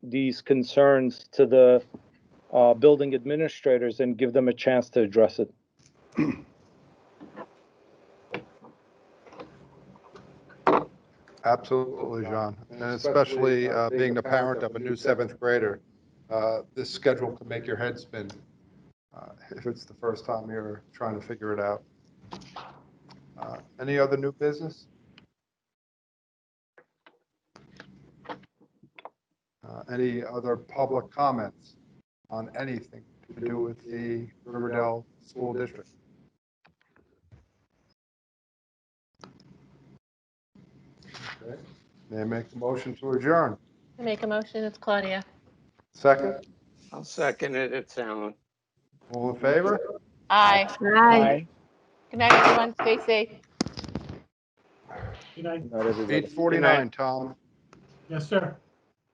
these concerns to the uh, building administrators and give them a chance to address it. Absolutely, John. Uh, And especially uh, being the parent of a new seventh grader, uh, this schedule can make your head spin uh, if it's the first time you're trying to figure it out. Uh, Any other new business? Uh, Any other public comments on anything to do with the Riverdale School District? Okay. May I make the motion to adjourn? I make a motion, it's Claudia. Second, I'll second it, it's Alan. all in favor? Aye. Aye. Good night, everyone. Stay safe. Good night. Not everybody. 8:49, Tom. Yes, sir.